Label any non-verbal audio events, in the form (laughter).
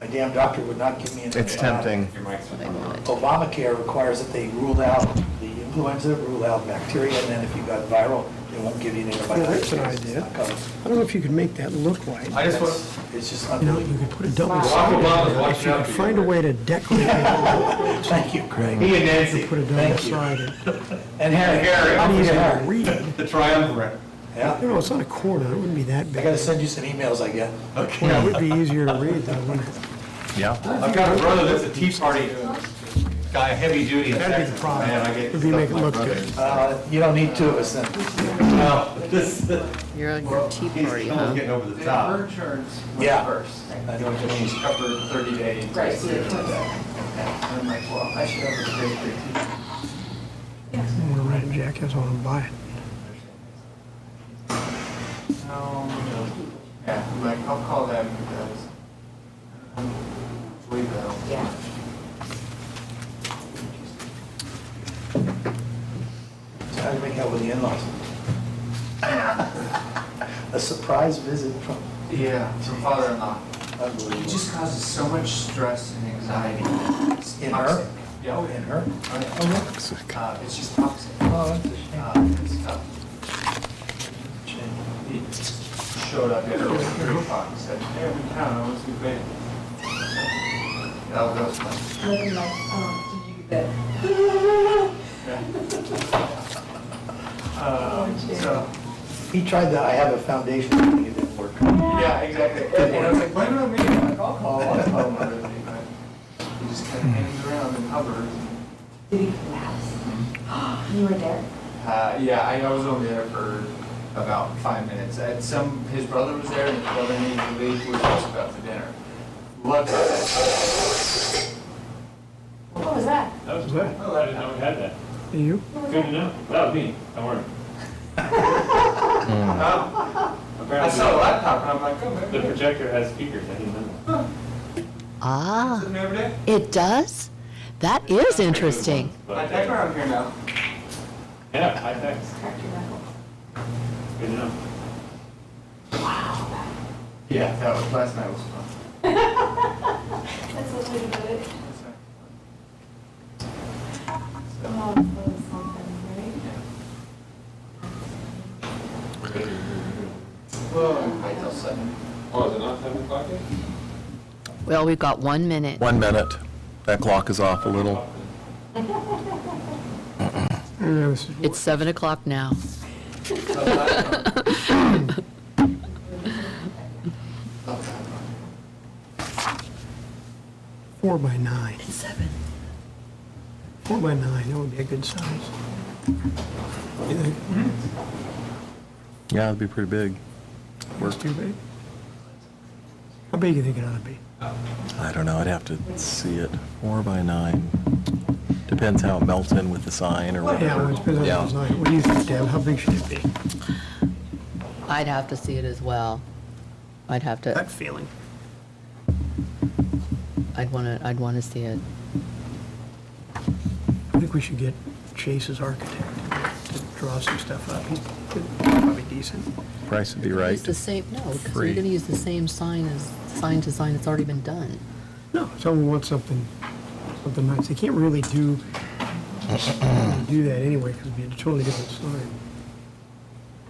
My damn doctor would not give me an It's antibiotic. tempting. Your mic's I on. want. Obamacare requires that they rule out the influenza, rule out bacteria, and then if you got viral, they won't give you an antibiotic. Yeah, that's an It's idea. not covered. I don't know if you could make that look like, I just want, That's- It's just you know, you unbelievable. could put a double Barack sided Obama's there. If watching you out could for you. find a way to decorate it, Thank you, Craig. he and Nancy, put a double Thank you. sided. (laughs) And Harry. Harry. I need a Easier to Harry. read. the triumvirate. You Yeah, know, it's not a corner, it wouldn't be that I big. gotta send you some emails I get. Well, it would be easier to read though, wouldn't it? Yeah. I've got a brother that's a Tea Party guy, heavy duty in That'd be the Texas, problem. man, I get. If you make it look good. Uh, You don't need two of us then. No, this, he's You're on your tea party, almost huh? getting over the The top. her terms were Yeah. first. I know what you mean. Covered thirty days. Right, so it was, okay. And I'm like, well, I should have a great, great teacher. I'm gonna write a jackass on and buy it. No, no. Yeah, I'm like, I'll call them because uh, I don't believe that. Yeah. So How do you make out with the in-laws? (laughs) A surprise visit from, Yeah, from father-in-law. It unbelievable. just causes so much stress and anxiety. It's In toxic. her? Yeah, Oh, in her? Oh, yeah. Uh, it's just toxic. Oh, that's a shame. Uh, it's tough. Shame. He showed up at three o'clock and said, hey, I'm in town, I want to be paid. That was fun. looking like, um, did you get Oh, Um, So, He tried the, I have a foundation, thing, it didn't work. yeah, exactly. And I was like, why don't I meet him? Like, I'll call, I'll call him everything, but he just kind of hangs around and hovers. Did he collapse? (gasps) You were there? Uh, yeah, I, I was only there for about five minutes. And some, his brother was there and his brother needed to leave, we were just about to dinner. Luckily, What was that? That was good. I didn't know we had that. You? Good to know. That was me. Don't worry. I saw a Apparently, laptop and I'm like, oh, the maybe. projector has speakers. I didn't know that. Ah, Isn't it every day? it does? That is interesting. My But, tech uh, around here now. Yeah, high thanks. Good to know. Yeah, that was, last night was fun. That's what we did. So, Well, wait till seven. Oh, is it not seven o'clock yet? Well, we've got one minute. One minute. That clock is off a little. Yeah, this is- Hmm. It's seven o'clock now. Four by nine. Seven. Four by nine, that would be a good size. You think Yeah, it'd be pretty big. It's too big? How big you think it ought to be? I don't know, I'd have to see it. Four by nine. Depends how it melts in with the sign or Yeah, well, whatever. it depends on the Yeah. design. What do you think, Deb? How big should it be? I'd have to see it as well. I'd have to, That feeling. I'd want to, I'd want to see it. I think we should get Chase's architect to draw some stuff up. He's probably decent. Price would be Use right. the same, no, because you're Free. going to use the same sign as, sign to sign that's already been done. No, someone wants something, something nice. They can't really do, do that anyway because it'd be a totally different sign.